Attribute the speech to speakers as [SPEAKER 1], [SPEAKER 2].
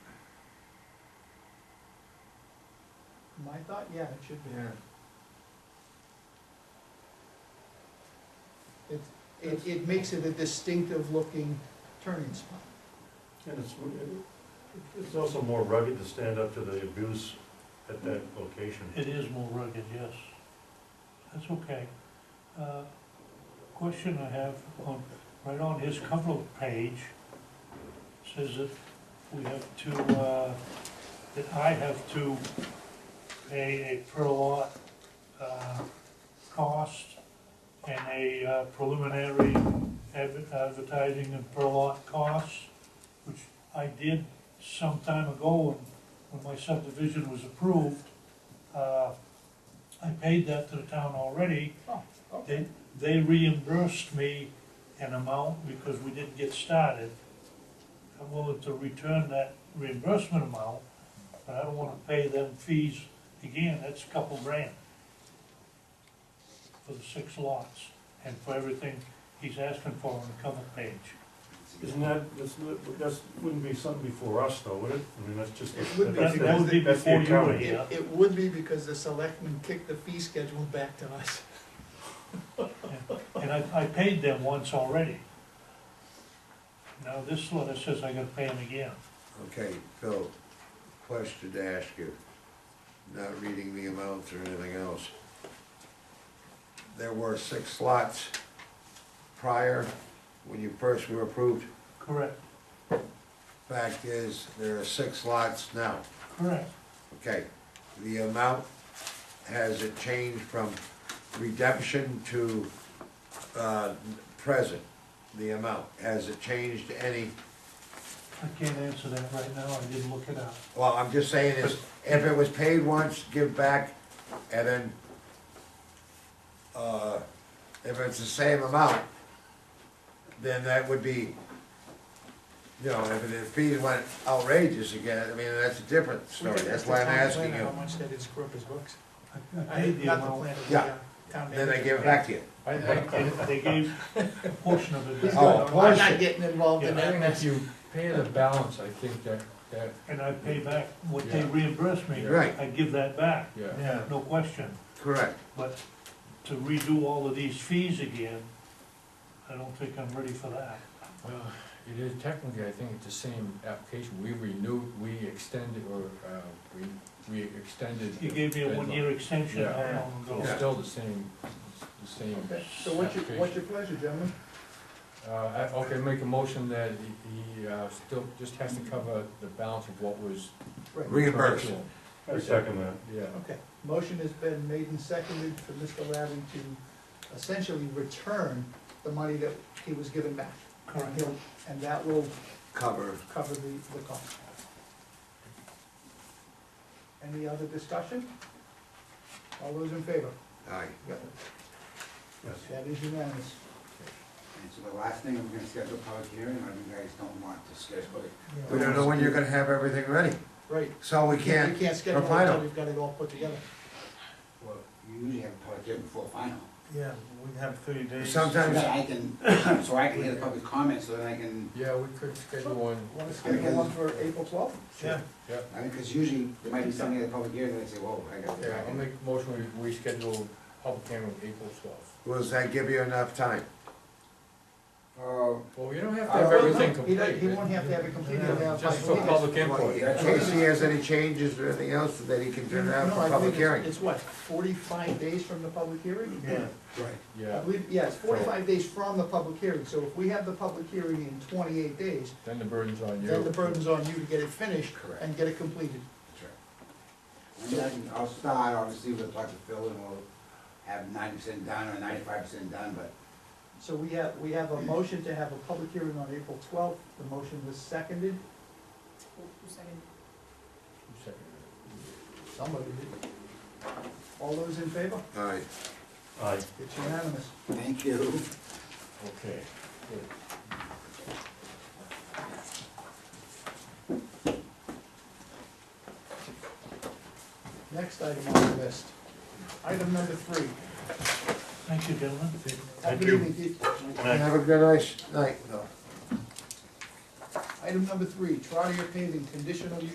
[SPEAKER 1] I thought, yeah, it should be.
[SPEAKER 2] Yeah.
[SPEAKER 1] It, it, it makes it a distinctive looking turning spot.
[SPEAKER 3] And it's, it's also more rugged to stand up to the abuse at that location.
[SPEAKER 4] It is more rugged, yes. That's okay. Uh, Question I have on, right on his cover page, says that we have to, uh, that I have to pay a per lot uh, cost and a uh, preliminary adver- advertising and per lot costs, which I did some time ago when, when my subdivision was approved. Uh, I paid that to the town already.
[SPEAKER 1] Oh, okay.
[SPEAKER 4] They, they reimbursed me an amount because we didn't get started. I'm willing to return that reimbursement amount, but I don't wanna pay them fees again, that's a couple grand for the six lots and for everything he's asking for on the cover page.
[SPEAKER 3] Isn't that, that's, not- that's, wouldn't be something before us though, would it? I mean, that's just.
[SPEAKER 1] It would be.
[SPEAKER 3] that's-
[SPEAKER 4] That that would be
[SPEAKER 3] that's the
[SPEAKER 4] before you were
[SPEAKER 3] accounting.
[SPEAKER 1] It,
[SPEAKER 4] here.
[SPEAKER 1] it would be because the selectmen kicked the fee schedule back to us.
[SPEAKER 4] And I, I paid them once already. Now this letter says I gotta pay them again.
[SPEAKER 2] Okay, Phil, question to ask you, not reading the amounts or anything else. There were six lots prior, when you first were approved.
[SPEAKER 4] Correct,
[SPEAKER 2] Fact is, there are six lots now.
[SPEAKER 4] correct.
[SPEAKER 2] Okay, the amount, has it changed from redemption to, uh, present? The amount, has it changed any?
[SPEAKER 4] I can't answer that right now, I didn't look it up.
[SPEAKER 2] Well, I'm just saying is, if it was paid once, give back, and then, uh, if it's the same amount, then that would be, you know, if the fees went outrageous again, I mean, that's a different story, that's why I'm asking you.
[SPEAKER 1] How much that is Crocus Books.
[SPEAKER 4] I- I
[SPEAKER 1] I,
[SPEAKER 4] paid the
[SPEAKER 1] not the
[SPEAKER 4] amount.
[SPEAKER 1] plan of the
[SPEAKER 2] Yeah.
[SPEAKER 1] uh, town.
[SPEAKER 2] Then they
[SPEAKER 1] manager.
[SPEAKER 2] give it back to you.
[SPEAKER 5] I, I,
[SPEAKER 4] They they gave a portion of it.
[SPEAKER 1] He's
[SPEAKER 4] back.
[SPEAKER 2] Oh,
[SPEAKER 1] good. I'm
[SPEAKER 2] portion.
[SPEAKER 1] not getting involved in
[SPEAKER 4] Yeah.
[SPEAKER 5] I
[SPEAKER 1] that
[SPEAKER 5] think if
[SPEAKER 1] mess.
[SPEAKER 5] you pay the balance, I think that, that,
[SPEAKER 4] And I pay back what they
[SPEAKER 5] Yeah.
[SPEAKER 4] reimbursed me.
[SPEAKER 2] Right.
[SPEAKER 4] I give that back,
[SPEAKER 5] yeah,
[SPEAKER 3] Yeah,
[SPEAKER 4] no question,
[SPEAKER 2] Correct.
[SPEAKER 4] but to redo all of these fees again, I don't think I'm ready for that.
[SPEAKER 5] well, uh, it is technically, I think it's the same application, we renewed, we extended, or, uh, we, we extended.
[SPEAKER 4] You gave me a
[SPEAKER 5] the
[SPEAKER 4] one-year extension, how
[SPEAKER 5] Yeah.
[SPEAKER 4] long
[SPEAKER 5] deadline.
[SPEAKER 4] ago?
[SPEAKER 5] It's still the same, the same.
[SPEAKER 1] So what's your, what's your pleasure, gentlemen?
[SPEAKER 5] Uh, I, okay, make a motion that he, he, uh, still just has to cover the balance of what was.
[SPEAKER 1] Right,
[SPEAKER 2] Reimbursed.
[SPEAKER 5] original.
[SPEAKER 3] I second that.
[SPEAKER 5] Yeah,
[SPEAKER 1] okay. Motion has been made and seconded for Mr. Labby to essentially return the money that he was given back.
[SPEAKER 4] Correct.
[SPEAKER 1] He'll- And that will
[SPEAKER 2] Cover.
[SPEAKER 1] cover the, the cost. Any other discussion? All those in favor?
[SPEAKER 2] Aye.
[SPEAKER 3] Yes.
[SPEAKER 1] That is unanimous.
[SPEAKER 6] And so the last thing, we're gonna schedule a public hearing, or you guys don't want to schedule it?
[SPEAKER 2] We don't know when you're gonna have everything ready,
[SPEAKER 1] Right.
[SPEAKER 2] so we
[SPEAKER 1] We
[SPEAKER 2] can't,
[SPEAKER 1] can't schedule it
[SPEAKER 2] final.
[SPEAKER 1] until we've got it all put together.
[SPEAKER 6] Well, you usually have a public hearing before final.
[SPEAKER 7] Yeah, we have thirty days.
[SPEAKER 6] So
[SPEAKER 2] sometimes,
[SPEAKER 6] that I can, so I can hear the public comments, so then I can,
[SPEAKER 5] yeah, we could schedule one,
[SPEAKER 1] Want to schedule one for April twelfth?
[SPEAKER 4] Yeah.
[SPEAKER 5] yeah.
[SPEAKER 6] I mean, cause usually there might be something at the public hearing, and they say, whoa, I gotta.
[SPEAKER 5] Yeah, I'll make a motion, we, we schedule public hearing April twelfth.
[SPEAKER 2] does that give you enough time?
[SPEAKER 6] Oh,
[SPEAKER 5] Well, you don't have to
[SPEAKER 6] I
[SPEAKER 5] have
[SPEAKER 6] will
[SPEAKER 5] everything
[SPEAKER 1] He doesn't-
[SPEAKER 5] complete.
[SPEAKER 1] He won't have to have it completed. he'll have
[SPEAKER 5] Just
[SPEAKER 1] five
[SPEAKER 5] for
[SPEAKER 1] weeks.
[SPEAKER 5] public input.
[SPEAKER 2] In case he has any changes or anything else that he can turn
[SPEAKER 1] No, I
[SPEAKER 2] around for
[SPEAKER 1] believe
[SPEAKER 2] public
[SPEAKER 1] it's-
[SPEAKER 2] hearing.
[SPEAKER 1] It's what, forty-five days from the public hearing?
[SPEAKER 3] Yeah.
[SPEAKER 6] right.
[SPEAKER 1] I
[SPEAKER 5] Yeah,
[SPEAKER 1] believe, yeah, it's forty-five days from the public hearing, so if we have the public hearing in twenty-eight days,
[SPEAKER 5] then the burden's on you.
[SPEAKER 1] then the burden's on you to get it finished
[SPEAKER 6] Correct.
[SPEAKER 1] and get it completed.
[SPEAKER 6] That's right. And then I can, I'll start, obviously, with Dr. Phil, and we'll have ninety percent done or ninety-five percent done, but
[SPEAKER 1] So we have, we have a motion to have a public hearing on April twelfth, the motion was seconded, somebody did. All those in favor?
[SPEAKER 2] Aye.
[SPEAKER 3] Aye.
[SPEAKER 1] It's unanimous.
[SPEAKER 6] thank you.
[SPEAKER 5] Okay, good.
[SPEAKER 1] Next item on the list, item number three.
[SPEAKER 4] Thank you, gentlemen.
[SPEAKER 1] Have a good evening.
[SPEAKER 2] Have a good nice night, though.
[SPEAKER 1] Item number three, Trotter paving, conditional use